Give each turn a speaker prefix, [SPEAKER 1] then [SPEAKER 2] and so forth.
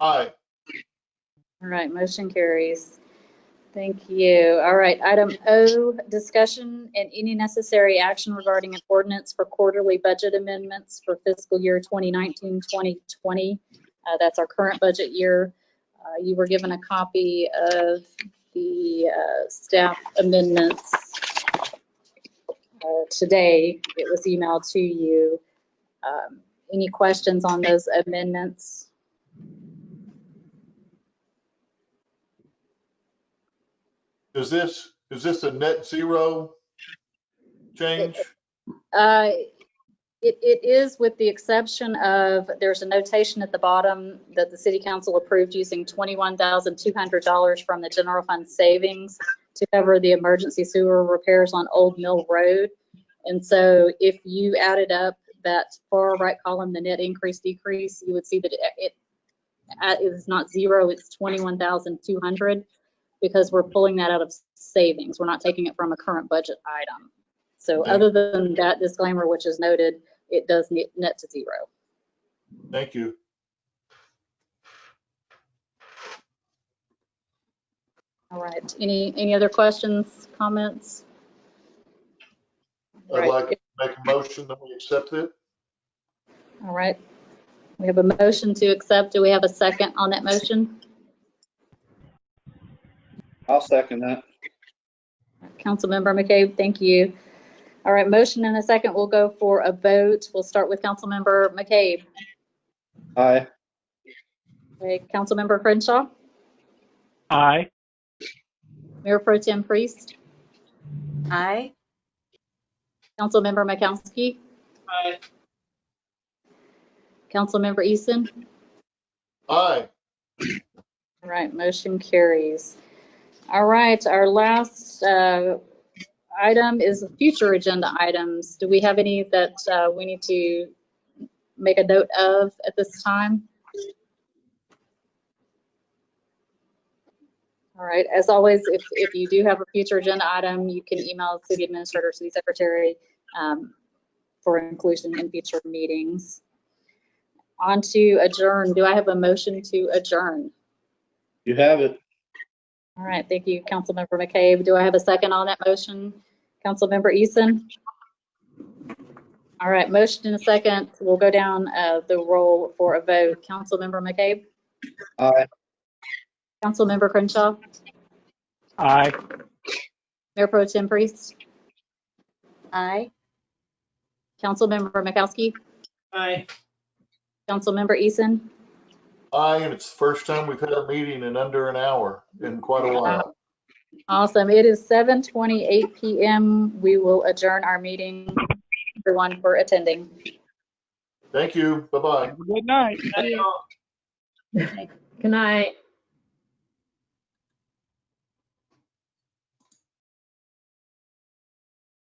[SPEAKER 1] Aye.
[SPEAKER 2] All right, motion carries. Thank you. All right, item O, discussion and any necessary action regarding an ordinance for quarterly budget amendments for fiscal year 2019, 2020. Uh, That's our current budget year. Uh, You were given a copy of the uh, staff amendments uh, today. It was emailed to you. Um, Any questions on those amendments?
[SPEAKER 1] Is this, is this a net zero change?
[SPEAKER 2] Uh, It, it is with the exception of, there's a notation at the bottom that the city council approved using $21,200 from the general fund savings to cover the emergency sewer repairs on Old Mill Road. And so if you added up that far right column, the net increase, decrease, you would see that it- it, uh, it is not zero, it's 21,200 because we're pulling that out of savings. We're not taking it from a current budget item. So
[SPEAKER 1] Okay.
[SPEAKER 2] other than that disclaimer, which is noted, it does net net to zero.
[SPEAKER 1] Thank you.
[SPEAKER 2] All right. Any, any other questions, comments?
[SPEAKER 1] I'd
[SPEAKER 2] Right.
[SPEAKER 1] like to make a motion that we accept it.
[SPEAKER 2] All right. We have a motion to accept. Do we have a second on that motion?
[SPEAKER 3] I'll second that.
[SPEAKER 2] Councilmember McCabe, thank you. All right, motion and a second. We'll go for a vote. We'll start with Councilmember McCabe.
[SPEAKER 3] Aye.
[SPEAKER 2] Okay, Councilmember Crenshaw,
[SPEAKER 4] Aye.
[SPEAKER 2] Mayor Pro Tem Priest,
[SPEAKER 5] Aye.
[SPEAKER 2] Councilmember Makowski,
[SPEAKER 5] Aye.
[SPEAKER 2] Councilmember Easton.
[SPEAKER 1] Aye.
[SPEAKER 2] All right, motion carries. All right, our last uh, item is future agenda items. Do we have any that uh, we need to make a note of at this time? All right, as always, if, if you do have a future agenda item, you can email city administrator, city secretary um, for inclusion in future meetings. On to adjourn. Do I have a motion to adjourn?
[SPEAKER 3] You have it.
[SPEAKER 2] All right, thank you, Councilmember McCabe. Do I have a second on that motion? Councilmember Easton? All right, motion and a second. We'll go down uh, the roll for a vote. Councilmember McCabe?
[SPEAKER 3] Aye.
[SPEAKER 2] Councilmember Crenshaw?
[SPEAKER 4] Aye.
[SPEAKER 2] Mayor Pro Tem Priest?
[SPEAKER 5] Aye.
[SPEAKER 2] Councilmember Makowski?
[SPEAKER 5] Aye.
[SPEAKER 2] Councilmember Easton?
[SPEAKER 1] Aye, and it's the first time we've had a meeting in under an hour in quite a while.
[SPEAKER 2] Awesome. It is 7:28 PM. We will adjourn our meeting. Everyone for attending.
[SPEAKER 1] Thank you. Bye-bye.
[SPEAKER 4] Have a good night.
[SPEAKER 5] Aye.
[SPEAKER 6] Good night.